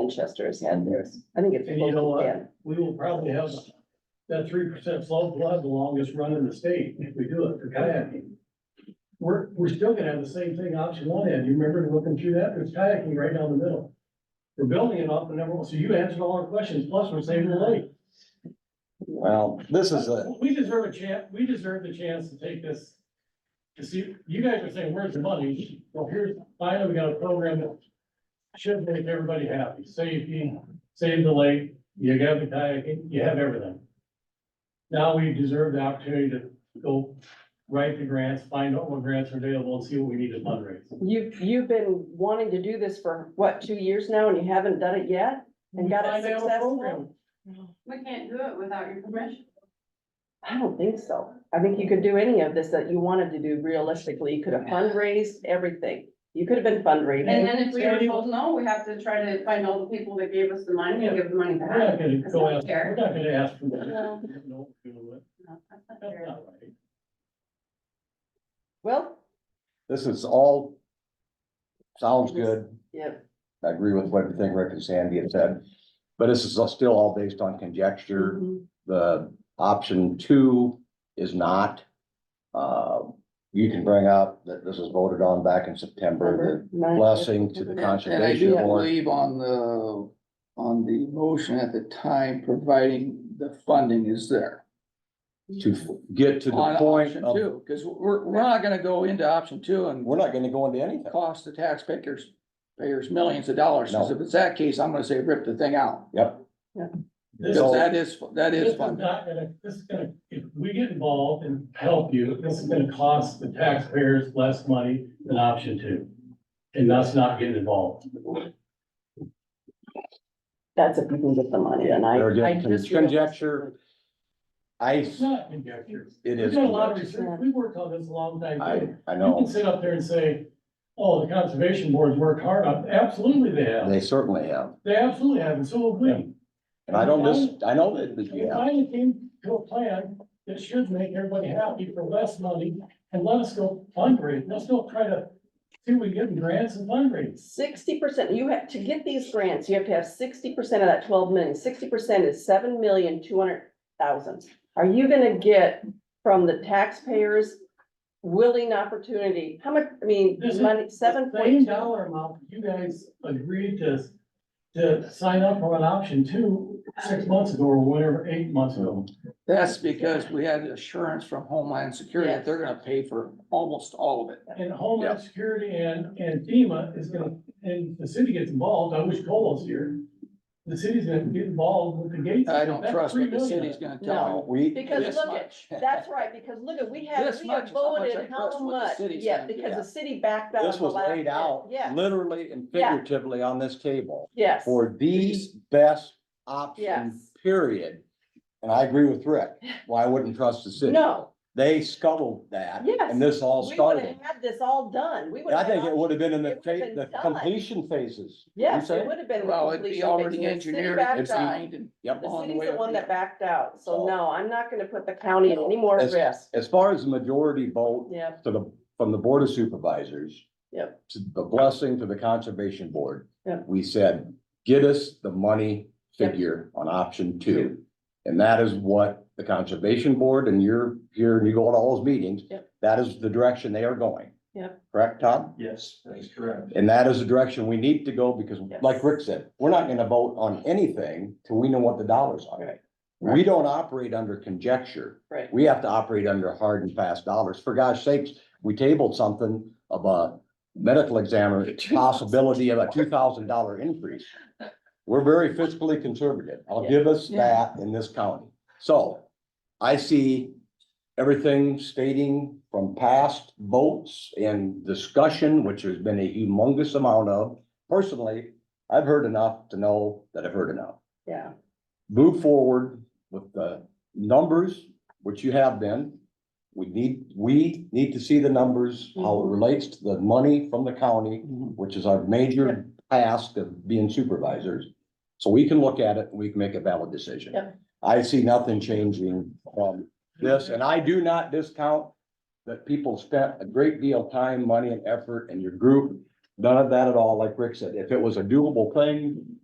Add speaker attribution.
Speaker 1: Manchester has had theirs. I think it's.
Speaker 2: And you know what?
Speaker 1: yeah.
Speaker 2: We will probably have that three percent flow will have the longest run in the state if we do it for kayaking. We're, we're still gonna have the same thing option one end. You remember looking through that? There's kayaking right down the middle. We're building it up and everyone, so you answered all our questions, plus we're saving the lake.
Speaker 3: Well, this is a,
Speaker 2: We deserve a chance, we deserve the chance to take this. To see, you guys are saying, where's the money? Well, here's, finally, we got a program that should make everybody happy, safety, save the lake, you got the kayaking, you have everything. Now we deserve the opportunity to go write the grants, find out what grants are available and see what we need to fundraise.
Speaker 1: You, you've been wanting to do this for, what, two years now, and you haven't done it yet? And got it
Speaker 2: Find out what
Speaker 1: successful?
Speaker 2: program.
Speaker 4: We can't do it without your permission.
Speaker 1: I don't think so. I think you could do any of this that you wanted to do realistically. You could have fundraised everything. You could have been
Speaker 4: And
Speaker 1: fundraising.
Speaker 4: then if we are told no, we have to try to find all the people that gave us the money and give the money
Speaker 2: We're
Speaker 4: back.
Speaker 2: not gonna
Speaker 4: That's
Speaker 2: go
Speaker 4: not
Speaker 2: ask,
Speaker 4: fair.
Speaker 2: we're not gonna ask for
Speaker 4: No.
Speaker 2: that. No, we don't do it.
Speaker 4: No, that's not
Speaker 2: That's
Speaker 4: fair.
Speaker 2: not right.
Speaker 1: Well,
Speaker 3: this is all. Sounds good.
Speaker 1: yeah,
Speaker 3: I agree with everything Rick and Sandy have said. But this is still all based on conjecture.
Speaker 1: Mhm.
Speaker 3: The option two is not. Uh, you can bring up that this was voted on back in September, the
Speaker 1: Nice.
Speaker 3: blessing to the
Speaker 5: And- And I
Speaker 3: conservation
Speaker 5: do
Speaker 3: board.
Speaker 5: believe on the, on the motion at the time, providing the funding is there.
Speaker 3: To get to the
Speaker 5: On
Speaker 3: point
Speaker 5: option
Speaker 3: of,
Speaker 5: two, because we're, we're not gonna go into option two and
Speaker 3: we're not gonna go into anything.
Speaker 5: cost the taxpayers, payers millions of dollars.
Speaker 3: No.
Speaker 5: Because if it's that case, I'm gonna say rip the thing out.
Speaker 3: Yep.
Speaker 2: This
Speaker 5: Because
Speaker 3: So-
Speaker 5: that is, that
Speaker 2: This
Speaker 5: is
Speaker 2: is
Speaker 5: funding.
Speaker 2: not gonna, this is gonna, if we get involved and help you, this is gonna cost the taxpayers less money than option two. And us not getting involved.
Speaker 1: That's if you can get the money, and I.
Speaker 3: They're
Speaker 1: I
Speaker 3: getting
Speaker 1: just
Speaker 3: conjecture. I,
Speaker 2: It's not conjecture.
Speaker 3: it
Speaker 2: We've
Speaker 3: is.
Speaker 2: done a lot of
Speaker 3: conjecture.
Speaker 2: research. We worked on this a long time.
Speaker 3: I,
Speaker 2: ago.
Speaker 3: I
Speaker 2: You can
Speaker 3: know.
Speaker 2: sit up there and say, oh, the conservation boards worked hard on, it." absolutely they have.
Speaker 3: They certainly have.
Speaker 2: They absolutely have, and so have we.
Speaker 3: And I don't miss, I know that, that
Speaker 2: We
Speaker 3: you have.
Speaker 2: finally came to a plan that should make everybody happy for less money and let us go fundraise. Let's go try to see if we can get grants and fundraise.
Speaker 1: Sixty percent, you have, to get these grants, you have to have sixty percent of that twelve million. Sixty percent is seven million, two hundred thousand. Are you gonna get from the taxpayers willing opportunity? How much, I mean,
Speaker 2: This is-
Speaker 1: money, seven
Speaker 2: The Same
Speaker 1: point two?
Speaker 2: dollar amount, you guys agreed to, to sign up for an option two, six months ago or whatever, eight months ago.
Speaker 5: That's because we had assurance from Homeland Security that they're gonna pay for almost all of it.
Speaker 2: And Homeland Security and, and FEMA is gonna, and the city gets involved, I wish Cole was here. The city's gonna get involved with the gates.
Speaker 5: I don't
Speaker 2: That's
Speaker 5: trust
Speaker 2: three
Speaker 5: what the
Speaker 2: million.
Speaker 5: city's gonna tell me.
Speaker 3: We,
Speaker 1: Because
Speaker 5: This
Speaker 1: look at,
Speaker 5: much.
Speaker 1: that's right, because look at, we have,
Speaker 5: This
Speaker 1: we have
Speaker 5: much is how much I
Speaker 1: voted how
Speaker 5: trust what the
Speaker 1: much,
Speaker 5: city's
Speaker 1: yeah,
Speaker 5: gonna do.
Speaker 1: because
Speaker 5: Yeah.
Speaker 1: the city backed out.
Speaker 3: this was
Speaker 1: the last-
Speaker 3: laid out
Speaker 1: Yeah,
Speaker 3: literally and
Speaker 1: Yeah.
Speaker 3: figuratively on this table
Speaker 1: yes,
Speaker 3: for the best option,
Speaker 1: yes.
Speaker 3: period. And I agree with Rick. Well, I wouldn't trust the city.
Speaker 1: No,
Speaker 3: They scuttled that
Speaker 1: Yes.
Speaker 3: and this all
Speaker 1: we would have
Speaker 3: started.
Speaker 1: had this all done. We would
Speaker 3: And I
Speaker 1: have.
Speaker 3: think it would have been in the
Speaker 1: It would've
Speaker 3: fa-
Speaker 1: been
Speaker 3: the
Speaker 1: done.
Speaker 3: completion phases. You
Speaker 1: Yes,
Speaker 3: say?
Speaker 1: it would have been. the
Speaker 5: Well, it'd be
Speaker 1: completion phase,
Speaker 5: already
Speaker 1: and the city
Speaker 5: engineered,
Speaker 1: backed
Speaker 5: it's
Speaker 1: out.
Speaker 5: signed and.
Speaker 3: Yep.
Speaker 1: The
Speaker 5: on
Speaker 1: city's
Speaker 5: way
Speaker 1: the
Speaker 5: up,
Speaker 1: one
Speaker 5: yeah.
Speaker 1: that backed out, so
Speaker 3: So-
Speaker 1: no, I'm not gonna put the county at any more
Speaker 3: As-
Speaker 1: risk.
Speaker 3: As far as the majority vote
Speaker 1: Yeah,
Speaker 3: to the, from the Board of Supervisors.
Speaker 1: Yep.
Speaker 3: To the blessing to the Conservation Board.
Speaker 1: Yep.
Speaker 3: We said, get us the money
Speaker 1: Yep.
Speaker 3: figure on option two. And that is what the Conservation Board and you're here and you go to all those meetings.
Speaker 1: Yep.
Speaker 3: That is the direction they are going.
Speaker 1: Yep.
Speaker 3: Correct, Todd?
Speaker 2: Yes, that's correct.
Speaker 3: And that is the direction we need to go because
Speaker 1: Yes.
Speaker 3: like Rick said, we're not gonna vote on anything till we know what the dollars are.
Speaker 1: Right.
Speaker 3: We don't operate under conjecture.
Speaker 1: right.
Speaker 3: We have to operate under hard and fast dollars. For gosh sakes, we tabled something of a medical examiner possibility of a two thousand dollar increase. We're very fiscally conservative. I'll give us
Speaker 5: Yeah.
Speaker 3: that in this county. So I see everything stating from past votes and discussion, which has been a humongous amount of. Personally, I've heard enough to know that I've heard enough
Speaker 1: Yeah,
Speaker 3: move forward with the numbers, which you have been. We need, we need to see the numbers, how it relates to the money from the county,
Speaker 1: Mm-hmm.
Speaker 5: Mhm.
Speaker 3: which is our major task of being supervisors. So we can look at it, and we can make a valid decision.
Speaker 1: Yep.
Speaker 3: I see nothing changing from this, and I do not discount that people spent a great deal of time, money and effort in your group. None of that at all, like Rick said, if it was a doable thing,